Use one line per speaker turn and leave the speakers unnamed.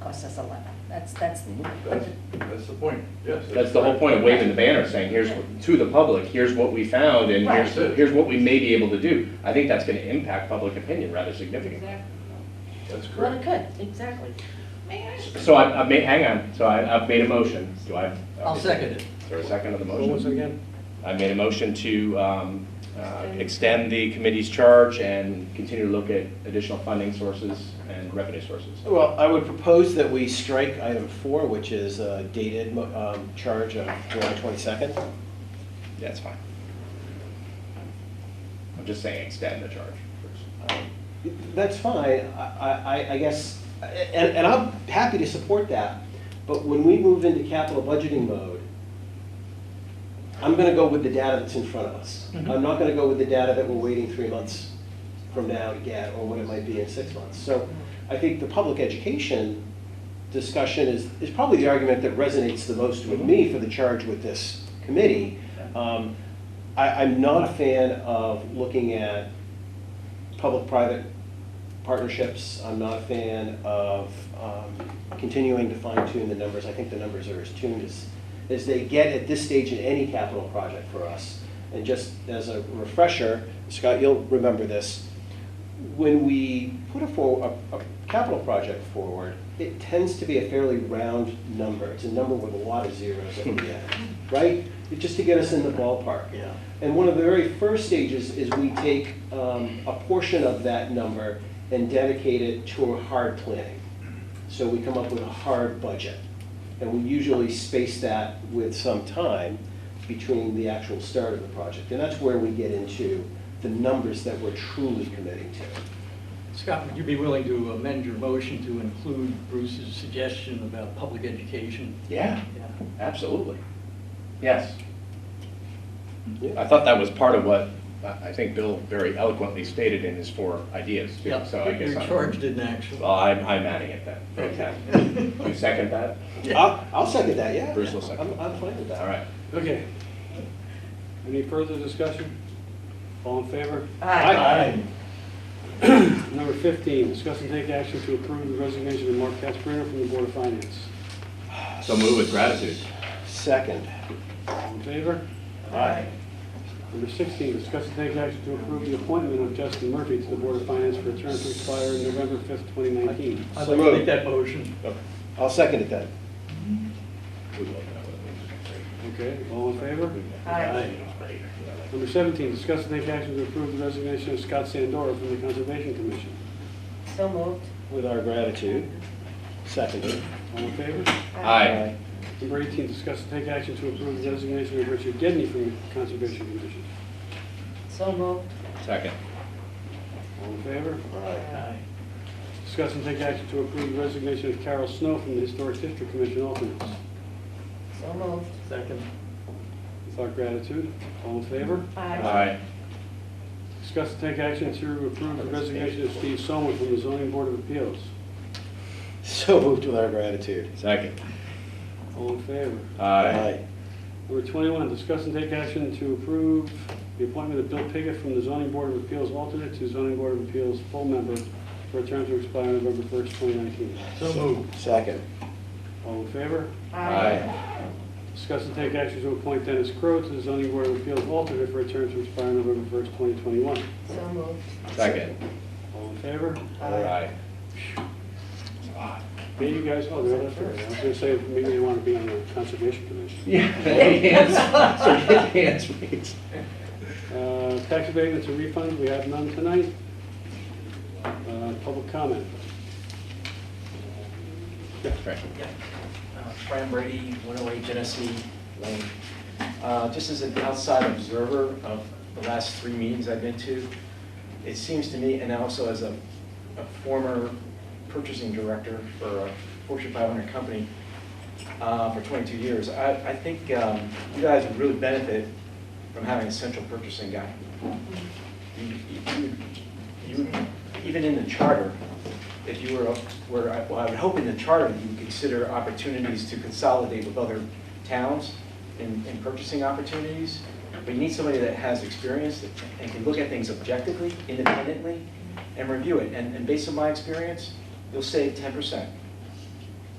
costs us a lot. That's, that's,
Mm-hmm.
That's, that's the point, yes.
That's the whole point of waving the banner, saying, here's, what- to the public, here's what we found, and here's,
Right.
here's what we may be able to do. I think that's gonna impact public opinion rather significantly.
That's
well, it
correct.
could, exactly.
May I?
So I, I've made, hang on, so I, I've made a motion, do I?
I'll second it.
Is there a second of the motion?
What was it again?
I made a motion to um, uh, extend the committee's charge and continue to look at additional funding sources and revenue sources.
Well, I would propose that we strike item four, which is uh, dated mo- um, charge of July 22nd.
That's fine. I'm just saying extend the charge.
That's fine, I, I, I guess, and, and I'm happy to support that, but when we move into capital budgeting mode, I'm gonna go with the data that's in front of us. I'm not gonna go with the data that we're waiting three months from now to get, or what it might be in six months. So I think the public education discussion is, is probably the argument that resonates the most with me for the charge with this committee. Um, I, I'm not a fan of looking at public-private partnerships. I'm not a fan of um, continuing to fine-tune the numbers. I think the numbers are as tuned as, as they get at this stage in any capital project for us. And just as a refresher, Scott, you'll remember this, when we put a, for, a, a capital project forward, it tends to be a fairly round number. It's a number with a lot of zeros at the end, right? Just to get us in the ballpark.
Yeah.
And one of the very first stages is we take um, a portion of that number and dedicate it to hard planning. So we come up with a hard budget. And we usually space that with some time between the actual start of the project. And that's where we get into the numbers that we're truly committing to.
Scott, would you be willing to amend your motion to include Bruce's suggestion about public education?
Yeah,
Yeah.
absolutely. Yes.
Yeah.
I thought that was part of what I I think Bill very eloquently stated in his four ideas. too,
Yeah,
So I guess
Your
I'm-
charge didn't actually.
Well, I'm, I'm adding it then. Fantastic. You second that?
I'll, I'll second that, yeah.
Bruce will second.
I'm, I'm fine with that.
All right.
Okay. Any further discussion? All in favor?
Aye.
Number 15, discuss and take action to approve the resignation of Mark Casperino from the Board of Finance.
So move with gratitude.
Second.
All in favor?
Aye.
Number 16, discuss and take action to approve the appointment of Justin Murphy to the Board of Finance for a term to expire November 5th, 2019.
I'd like to make that motion.
I'll second it then.
Okay, all in favor?
Aye.
Number 17, discuss and take action to approve the resignation of Scott Sandora from the Conservation Commission.
So moved.
With our gratitude. Seconded.
All in favor?
Aye.
Number 18, discuss and take action to approve the resignation of Richard Gedney from the Conservation Commission.
So moved.
Second.
All in favor?
Aye.
Discuss and take action to approve the resignation of Carol Snow from the Historic District Commission alternates.
So moved.
Second.
With our gratitude, all in favor?
Aye.
Discuss and take action to approve the resignation of Steve Sommer from the Zoning Board of Appeals.
So moved with our gratitude.
Second.
All in favor?
Aye.
Number 21, discuss and take action to approve the appointment of Bill Piggott from the Zoning Board of Appeals alternate to Zoning Board of Appeals full member for a term to expire November 1st, 2019.
So moved.
Second.
All in favor?
Aye.
Discuss and take action to appoint Dennis Crowe to the Zoning Board of Appeals alternate for a term to expire November 1st, 2021.
So moved.
Second.
All in favor?
Aye.
Hey, you guys, oh, they're left I was gonna say, maybe they wanna be on the Conservation Commission.
Yeah. Hands. So get hands raised.
Uh, Tax abatements and refunds, we have none tonight. Uh, Public comment.
Right.
Uh, Fran Brady, 108 Genesee Lane. Uh, Just as an outside observer of the last three meetings I've been to, it seems to me, and also as a a former purchasing director for a Fortune 500 company uh, for 22 years, I I think um, you guys would really benefit from having a central purchasing guy. You- you- you would- Even in the charter, if you were, were, I- well, I would hope in the charter you would consider opportunities to consolidate with other towns in, in purchasing opportunities, but you need somebody that has experience and can look at things objectively, independently, and review it. And, and based on my experience, you'll save ten percent